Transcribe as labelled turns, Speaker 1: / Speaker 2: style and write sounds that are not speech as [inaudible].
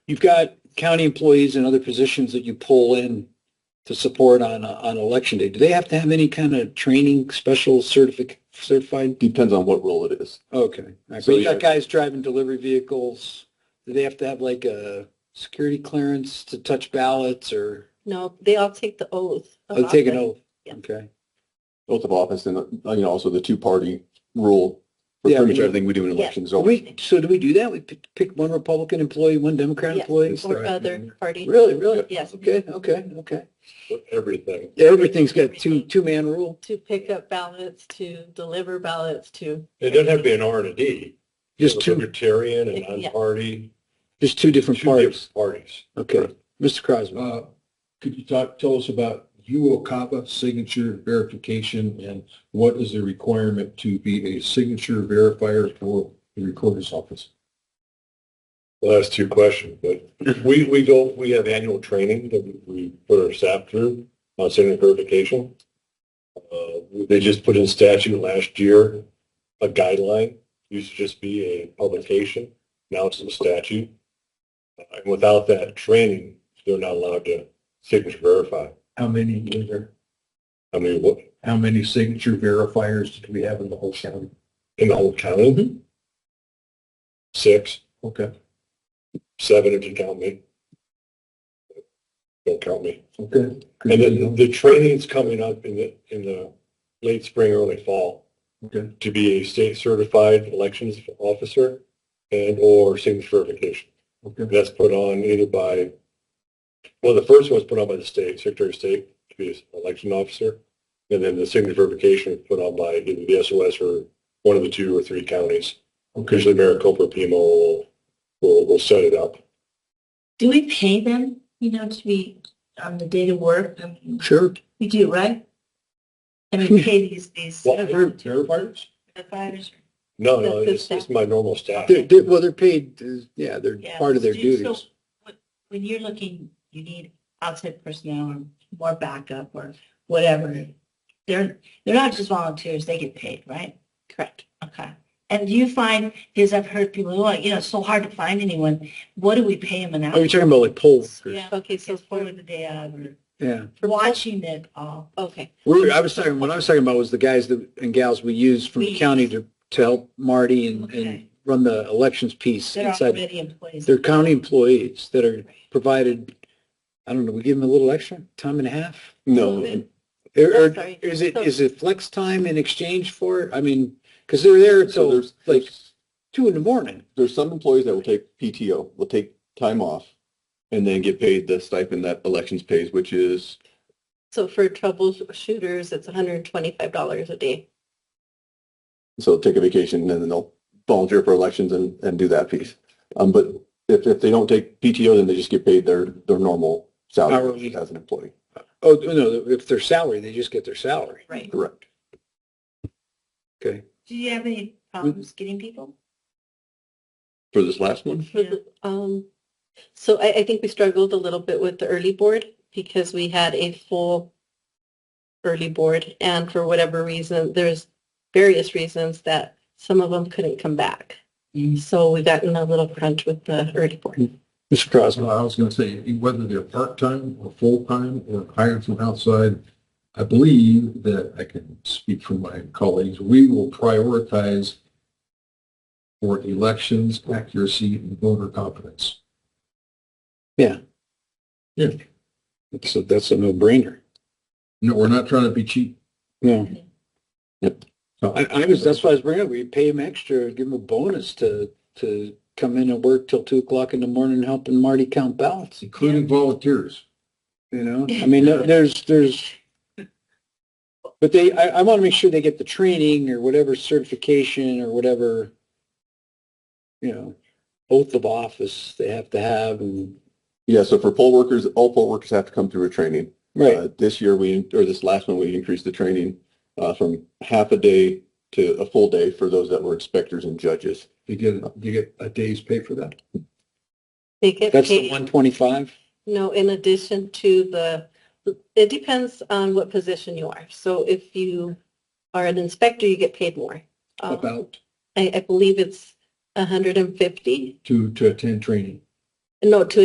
Speaker 1: you've got county employees and other positions that you pull in to support on, uh, on election day. Do they have to have any kind of training, special certific, certified?
Speaker 2: Depends on what role it is.
Speaker 1: Okay. All right.
Speaker 2: So
Speaker 1: But you got
Speaker 2: you're-
Speaker 1: guys driving delivery vehicles. Do they have to have like a security clearance to touch ballots or
Speaker 3: No, they all take the oath. of
Speaker 1: oh, take an
Speaker 3: office.
Speaker 1: oath?
Speaker 3: Yeah.
Speaker 1: Okay.
Speaker 2: Oath of office and, uh, you know, also the two-party rule for
Speaker 1: Yeah,
Speaker 2: pretty much
Speaker 1: we-
Speaker 2: everything we do in
Speaker 3: Yeah.
Speaker 2: elections.
Speaker 1: So
Speaker 2: So
Speaker 1: we, so do we do that? We pick pick one Republican employee, one Democrat
Speaker 3: Yes,
Speaker 1: employee?
Speaker 3: Or other party.
Speaker 1: Mm-hmm. Really, really?
Speaker 3: Yes,
Speaker 1: Okay, okay, okay.
Speaker 2: Everything.
Speaker 1: Everything's got two,
Speaker 3: Everything.
Speaker 1: two-man rule.
Speaker 3: to pick up ballots, to deliver ballots, to.
Speaker 4: It doesn't have to be an R and a D.
Speaker 1: Just
Speaker 4: It's
Speaker 1: two,
Speaker 4: Libertarian and
Speaker 3: Yeah.
Speaker 4: non-party,
Speaker 1: just two
Speaker 4: two
Speaker 1: different parties.
Speaker 4: different parties.
Speaker 1: Okay. Mr. Crosby,
Speaker 5: Uh, Could you talk, tell us about UOCAPA signature verification and what is the requirement to be a signature verifier for the recorder's office?
Speaker 4: Well, that's two questions, but we, we go, we have annual training that we- we put our staff through on signature verification. Uh, They just put in statute last year, a guideline, used to just be a publication, now it's a statute. Uh, And without that training, they're not allowed to signature verify.
Speaker 5: How many is there?
Speaker 4: I mean, what,
Speaker 5: How many signature verifiers do we have in the whole county? Mm-hmm.
Speaker 4: in the whole county? Six.
Speaker 5: Okay,
Speaker 4: seven if you count me. Don't count me.
Speaker 5: okay.
Speaker 4: And
Speaker 5: Mm-hmm.
Speaker 4: then the training's coming up in the, in the late spring, early fall
Speaker 5: Okay,
Speaker 4: to be a state certified elections officer and or signature verification.
Speaker 5: okay.
Speaker 4: That's put on either by, well, the first one's put on by the state, Secretary of State to be an election officer. And then the signature verification is put on by either the SOS or one of the two or three counties.
Speaker 5: Okay.
Speaker 4: Usually Maricopa, or PMO will, will, will set it up.
Speaker 6: Do we pay them, you know, to be on the day to work? I mean,
Speaker 1: sure.
Speaker 6: We do, right? And
Speaker 1: [laughs]
Speaker 6: we pay these, these
Speaker 4: Well,
Speaker 5: Verifiers?
Speaker 6: providers.
Speaker 4: No, no,
Speaker 3: That's the
Speaker 4: it's, it's
Speaker 3: staff.
Speaker 4: my normal staff.
Speaker 1: They're, they're, well, they're paid, uh, yeah, they're
Speaker 6: Yeah.
Speaker 1: part of their
Speaker 6: So- so
Speaker 1: duties.
Speaker 6: when- When you're looking, you need outside personnel or more backup or whatever. They're, they're not just volunteers, they get paid, right?
Speaker 3: Correct.
Speaker 6: Okay. And do you find, because I've heard people, oh, you know, it's so hard to find anyone. What do we pay them an
Speaker 1: Are you
Speaker 6: hour?
Speaker 1: Oh, talking about like polls?
Speaker 6: Yeah,
Speaker 3: Okay, so
Speaker 6: It's
Speaker 3: for,
Speaker 6: for the day out or
Speaker 1: Yeah.
Speaker 6: watching it all.
Speaker 3: okay,
Speaker 1: We're, I was talking, what I was talking about was the guys that, and gals we use from the
Speaker 6: We
Speaker 1: county
Speaker 6: use.
Speaker 1: to, to help Marty and, and
Speaker 6: Okay.
Speaker 1: run the elections piece
Speaker 6: They're
Speaker 1: inside.
Speaker 6: already employees.
Speaker 1: They're county employees that are provided, I don't know, we give them a little extra, time and a half?
Speaker 2: No,
Speaker 1: Or, or
Speaker 3: I'm sorry.
Speaker 1: is it,
Speaker 3: So-
Speaker 1: is it flex time in exchange for it? I mean, because they're there
Speaker 2: so
Speaker 1: till
Speaker 2: there's,
Speaker 1: like
Speaker 2: there's,
Speaker 1: two in the morning.
Speaker 2: there's some employees that will take PTO, will take time off and then get paid the stipend that elections pays, which is,
Speaker 3: so for troubleshooters, it's hundred and twenty-five dollars a day.
Speaker 2: so they'll take a vacation and then they'll volunteer for elections and, and do that piece. Um, but if, if they don't take PTO, then they just get paid their, their normal salary
Speaker 1: Hourly.
Speaker 2: as an employee.
Speaker 1: Oh, no, if they're salary, they just get their salary.
Speaker 3: Right.
Speaker 2: Correct.
Speaker 1: Okay.
Speaker 6: Do you have any problems getting people?
Speaker 2: For this last one?
Speaker 3: For the- [laughs] Um, so I, I think we struggled a little bit with the early board because we had a full early board and for whatever reason, there's various reasons that some of them couldn't come back.
Speaker 1: Mm-hmm.
Speaker 5: Mm.
Speaker 3: So we got in a little crunch with the early board.
Speaker 1: Mr. Crosby,
Speaker 5: Well, I was gonna say, whether they're part-time or full-time or hired from outside, I believe that I can speak for my colleagues, we will prioritize for elections, accuracy, and voter confidence.
Speaker 1: that's a, that's a no-brainer.
Speaker 5: No, we're not trying to be cheap.
Speaker 1: No.
Speaker 2: Yep.
Speaker 1: So I, I was, that's why I was bringing up, we pay them extra, give them a bonus to, to come in and work till two o'clock in the morning helping Marty count ballots,
Speaker 5: Including volunteers.
Speaker 1: you know? I mean, there- there's, there's, but they, I, I want to make sure they get the training or whatever certification or whatever, you know, oath of office they have to have and,
Speaker 2: Yeah, so for poll workers, all poll workers have to come through a training.
Speaker 1: right,
Speaker 2: Uh, This year, we, or this last one, we increased the training uh, from half a day to a full day for those that were inspectors and judges.
Speaker 5: You get, you get a day's pay for that.
Speaker 3: They get
Speaker 1: that's the
Speaker 3: paid-
Speaker 1: one twenty-five?
Speaker 3: No, in addition to the, it depends on what position you are. So if you are an inspector, you get paid more. Um,
Speaker 5: About
Speaker 3: I, I believe it's 150,
Speaker 5: to, to attend training.
Speaker 3: no, to